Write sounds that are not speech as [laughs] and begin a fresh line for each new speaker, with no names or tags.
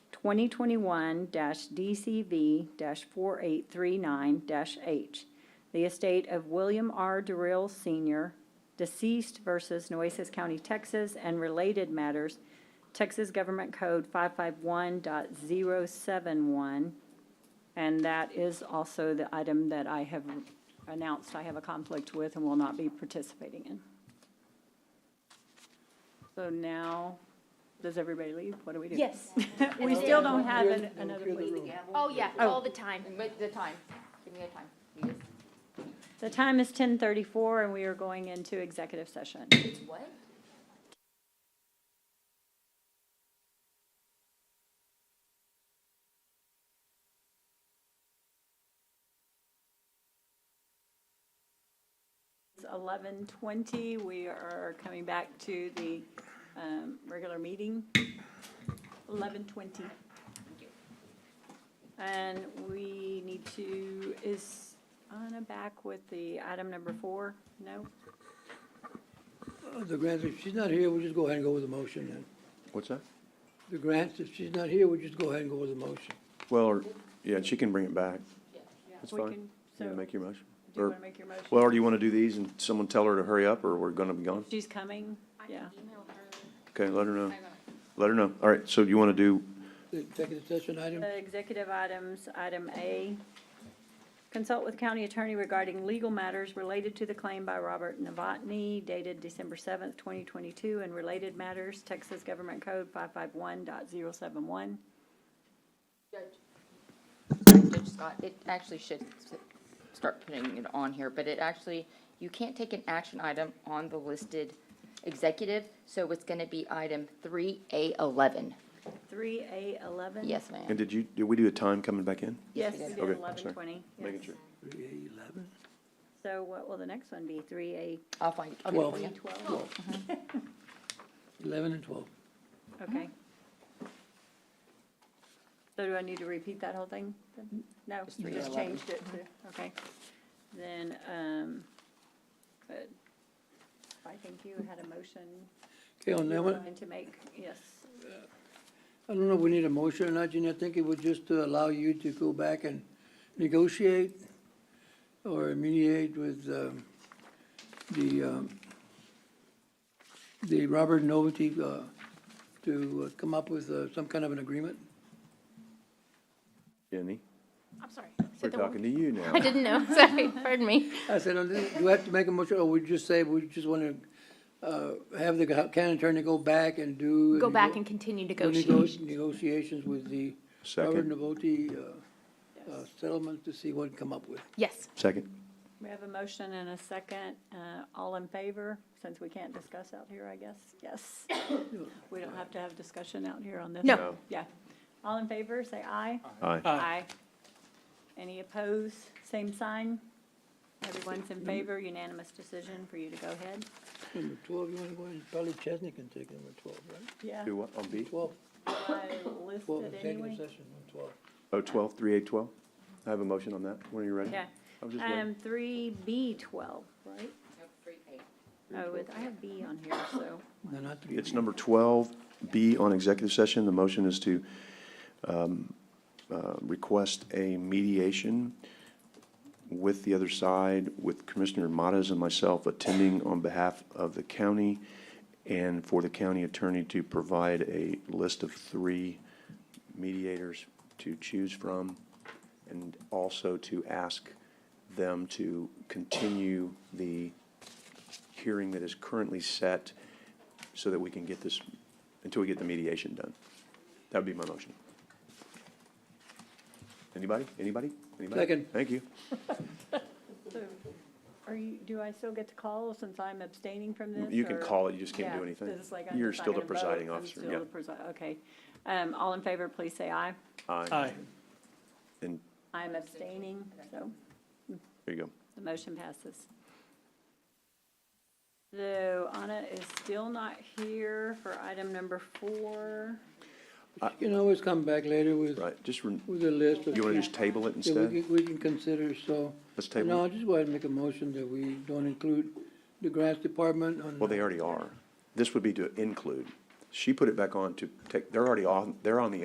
2021-DCV-4839-H, the estate of William R. Durrell Sr., deceased versus Nueces County, Texas, and related matters, Texas Government Code 551.071. And that is also the item that I have announced I have a conflict with and will not be participating in. So now, does everybody leave? What do we do?
Yes.
[laughs] We still don't have an- another week.
Oh, yeah,
Oh.
all the time.
But the time, give me a time. You just-
The time is ten thirty-four and we are going into executive session.
It's what?
It's eleven twenty. We are coming back to the, um, regular meeting. Eleven twenty. And we need to, is Anna back with the item number four? No?
Uh, The grants, if she's not here, we'll just go ahead and go with the motion then.
What's that?
The grants, if she's not here, we'll just go ahead and go with the motion.
Well, or, yeah, she can bring it back. That's
We
fine.
can-
You
So,
wanna
do
make your motion?
you
Or-
want to make your motion?
Well, or do you wanna do these and someone tell her to hurry up or we're gonna be gone?
She's coming, yeah.
Okay, let her know. Let her know. All right, so you wanna do,
The executive session item,
The executive items, item A, consult with county attorney regarding legal matters related to the claim by Robert Novotny dated December seventh, twenty twenty-two, and related matters, Texas Government Code five five one dot zero seven one.
Judge Scott, it actually should s- start putting it on here, but it actually, you can't take an action item on the listed executive, so it's gonna be item three A eleven.
Three A eleven?
Yes,
and
ma'am.
did you, did we do a time coming back in?
Yes,
Yes,
we
we
did
did. Okay,
eleven
sorry.
twenty.
Making sure.
three A eleven?
So what will the next one be? Three A
I'll find, I'll get it
Twelve.
for you.
twelve?
[laughs] Eleven and twelve.
Okay. So do I need to repeat that whole thing? then? No,
Just
you
three
just
to eleven.
changed it to, okay. Then, um, good. I think you had a motion
Okay, on
you
that
were
one,
going to make, yes.
I don't know if we need a motion or not, Jeannie, I think it would just to allow you to go back and negotiate or mediate with, um, the, um, the Robert Novelty, uh, to uh, come up with, uh, some kind of an agreement.
Jenny,
I'm sorry.
we're
Said the wrong-
talking to you now.
I didn't know, [laughs] sorry, pardon me.
I said, "Oh, this- do we have to make a motion, or we just say, we just want to have the county attorney go back and do?
Go back and continue
do nego-
negotiations.
Negotiations with the Robert
Second,
Navoti uh, uh, settlement to see what we can come up with.
Yes.
second.
We have a motion and a second. Uh, all in favor, since we can't discuss out here, I guess? Yes. We don't have to have discussion out here on this?
No.
No.
Yeah. All in favor, say aye.
Aye.
Aye. Any opposed? Same sign? Everyone's in favor, unanimous decision for you to go ahead?
Number 12, you want to go ahead, probably Chesney can take number 12, right?
Yeah.
Do what, on B?
12,
I
12,
listed
executive
anyway?
session on 12.
Oh, twelve, three eight twelve? I have a motion on that. When are you ready?
Yeah.
I was just waiting.
Um, three B twelve, right? Oh, it- I have B on here, so.
No, not three.
It's number twelve B on executive session. The motion is to, um, uh, request a mediation with the other side, with Commissioner Matas and myself attending on behalf of the county and for the county attorney to provide a list of three mediators to choose from and also to ask them to continue the hearing that is currently set so that we can get this, until we get the mediation done. That would be my motion. Anybody? Anybody? Anybody?
Second.
Thank you.
Are you, do I still get to call since I'm abstaining from this?
You can
or-
call it, you just can't do
Yeah,
anything.
this is like I'm
You're
just not
still the
gonna vote,
presiding
I'm
officer,
still
yeah.
the presi- Okay. Um, all in favor, please say aye.
Aye. And,
I'm abstaining, so.
there you go.
The motion passes. Though Anna is still not here for item number four.
You can always come back later with,
Right, just, rem-
with a list of.
you want to just table it
Yeah, we
instead?
can, we can consider, so.
Let's
No,
table
I'll
it.
just go ahead and make a motion that we don't include the grants department on.
Well, they already are. This would be to include. She put it back on to take, they're already on, they're on the